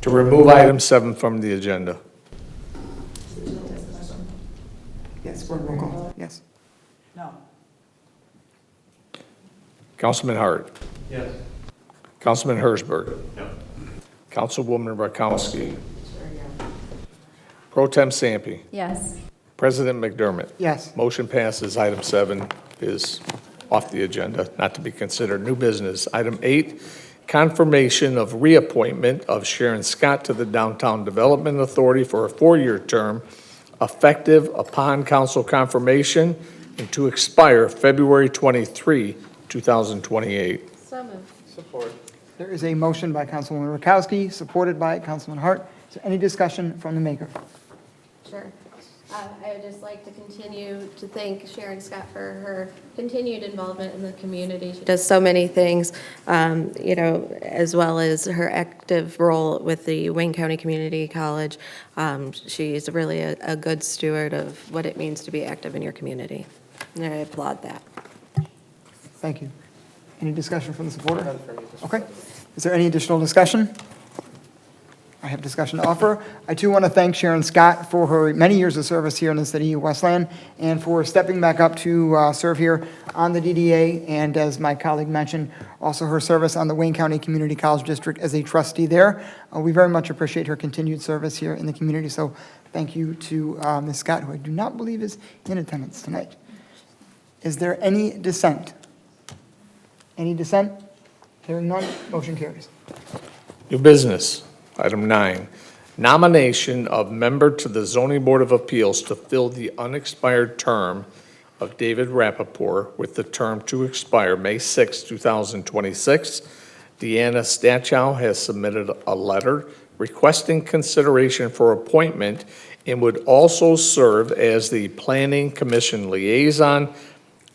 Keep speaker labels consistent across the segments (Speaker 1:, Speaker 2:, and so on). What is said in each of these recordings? Speaker 1: to remove item seven from the agenda.
Speaker 2: Yes, we're roll call, yes.
Speaker 3: No.
Speaker 1: Councilman Hart. Yes. Councilman Hersberg. No. Councilwoman Rakowski. Pro Tem Sampe.
Speaker 4: Yes.
Speaker 1: President McDermott.
Speaker 2: Yes.
Speaker 1: Motion passes. Item seven is off the agenda, not to be considered new business. Item eight, confirmation of reappointment of Sharon Scott to the Downtown Development Authority for a four-year term effective upon council confirmation and to expire February 23, 2028.
Speaker 4: So moved.
Speaker 2: There is a motion by Councilwoman Rakowski, supported by Councilman Hart. Is there any discussion from the maker?
Speaker 4: Sure. Uh, I would just like to continue to thank Sharon Scott for her continued involvement in the community. She does so many things, um, you know, as well as her active role with the Wayne County Community College. Um, She's really a a good steward of what it means to be active in your community, and I applaud that.
Speaker 2: Thank you. Any discussion from the supporter? Okay. Is there any additional discussion? I have discussion to offer. I too want to thank Sharon Scott for her many years of service here in the city of Westland and for stepping back up to uh, serve here on the DDA. And as my colleague mentioned, also her service on the Wayne County Community College District as a trustee there. Uh, We very much appreciate her continued service here in the community. So thank you to uh, Ms. Scott, who I do not believe is in attendance tonight. Is there any dissent? Any dissent? Hearing none, motion carries.
Speaker 1: New business, item nine, nomination of member to the zoning board of appeals to fill the unexpired term of David Rappaport with the term to expire May 6, 2026. Deanna Stachow has submitted a letter requesting consideration for appointment and would also serve as the planning commission liaison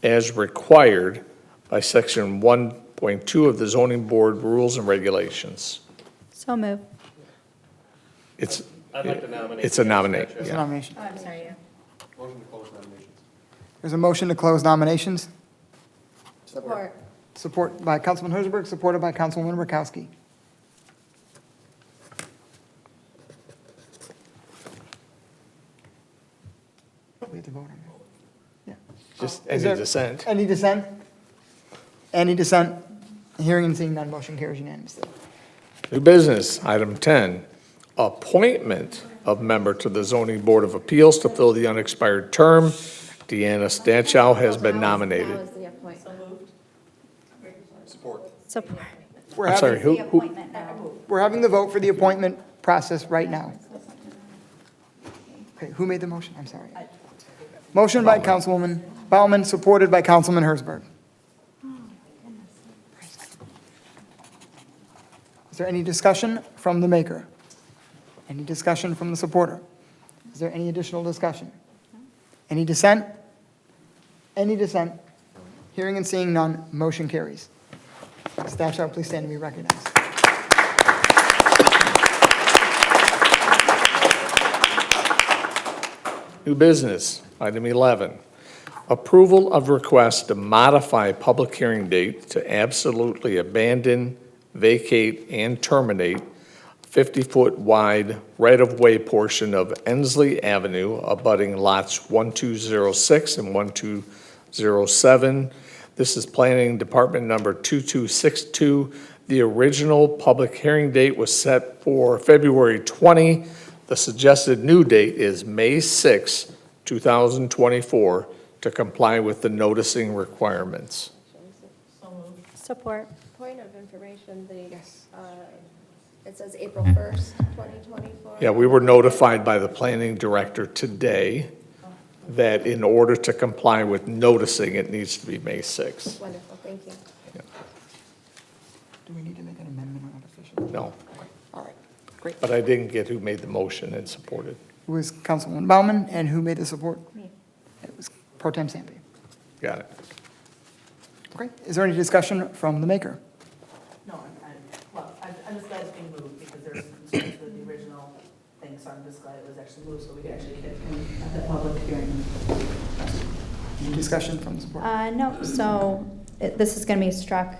Speaker 1: as required by section 1.2 of the zoning board rules and regulations.
Speaker 5: So moved.
Speaker 1: It's. I'd like to nominate. It's a nominate,
Speaker 2: There's a
Speaker 1: yeah.
Speaker 2: nomination.
Speaker 4: Oh, I'm sorry.
Speaker 2: There's a motion to close nominations,
Speaker 4: Support.
Speaker 2: support by Councilman Hersberg, supported by Councilwoman Rakowski. We have to vote on that.
Speaker 1: Just
Speaker 2: Is
Speaker 1: any
Speaker 2: there-
Speaker 1: dissent.
Speaker 2: Yeah. Any dissent? Any dissent? Hearing and seeing none, motion carries unanimously.
Speaker 1: New business, item 10, appointment of member to the zoning board of appeals to fill the unexpired term. Deanna Stanchow has been
Speaker 4: That
Speaker 1: nominated.
Speaker 4: was the appointment.
Speaker 5: Support.
Speaker 2: We're
Speaker 1: I'm sorry,
Speaker 2: having,
Speaker 1: who, who,
Speaker 5: Appointment now.
Speaker 2: we're having the vote for the appointment process right now. Okay, who made the motion? I'm sorry. Motion by Councilwoman Bauman, supported by Councilman Hersberg. Is there any discussion from the maker? Any discussion from the supporter? Is there any additional discussion? Any dissent? Any dissent? Hearing and seeing none, motion carries. Staff shall please stand and be recognized.
Speaker 1: new business, item 11, approval of request to modify public hearing date to absolutely abandon, vacate, and terminate 50-foot wide right-of-way portion of Ensley Avenue abutting lots 1206 and 1207. This is Planning Department number 2262. The original public hearing date was set for February 20. The suggested new date is May 6, 2024, to comply with the noticing requirements.
Speaker 5: Support.
Speaker 4: Point of information, the, uh, it says April 1st, 2024.
Speaker 1: Yeah, we were notified by the planning director today that in order to comply with noticing, it needs to be May 6.
Speaker 4: Wonderful, thank you.
Speaker 2: Do we need to make an amendment on that official?
Speaker 1: No,
Speaker 2: All right, great.
Speaker 1: but I didn't get who made the motion and supported.
Speaker 2: It was Councilwoman Bauman, and who made the support? Me. It was Pro Tem Sampe.
Speaker 1: Got it.
Speaker 2: Okay, is there any discussion from the maker?
Speaker 3: No, I'm, I'm, well, I'm, I'm just glad it's being moved because there's concerns with the original thing, so I'm just glad it was actually moved so we could actually get the public hearing.
Speaker 2: Any discussion from the supporter?
Speaker 5: Uh, no, so it- this is going to be struck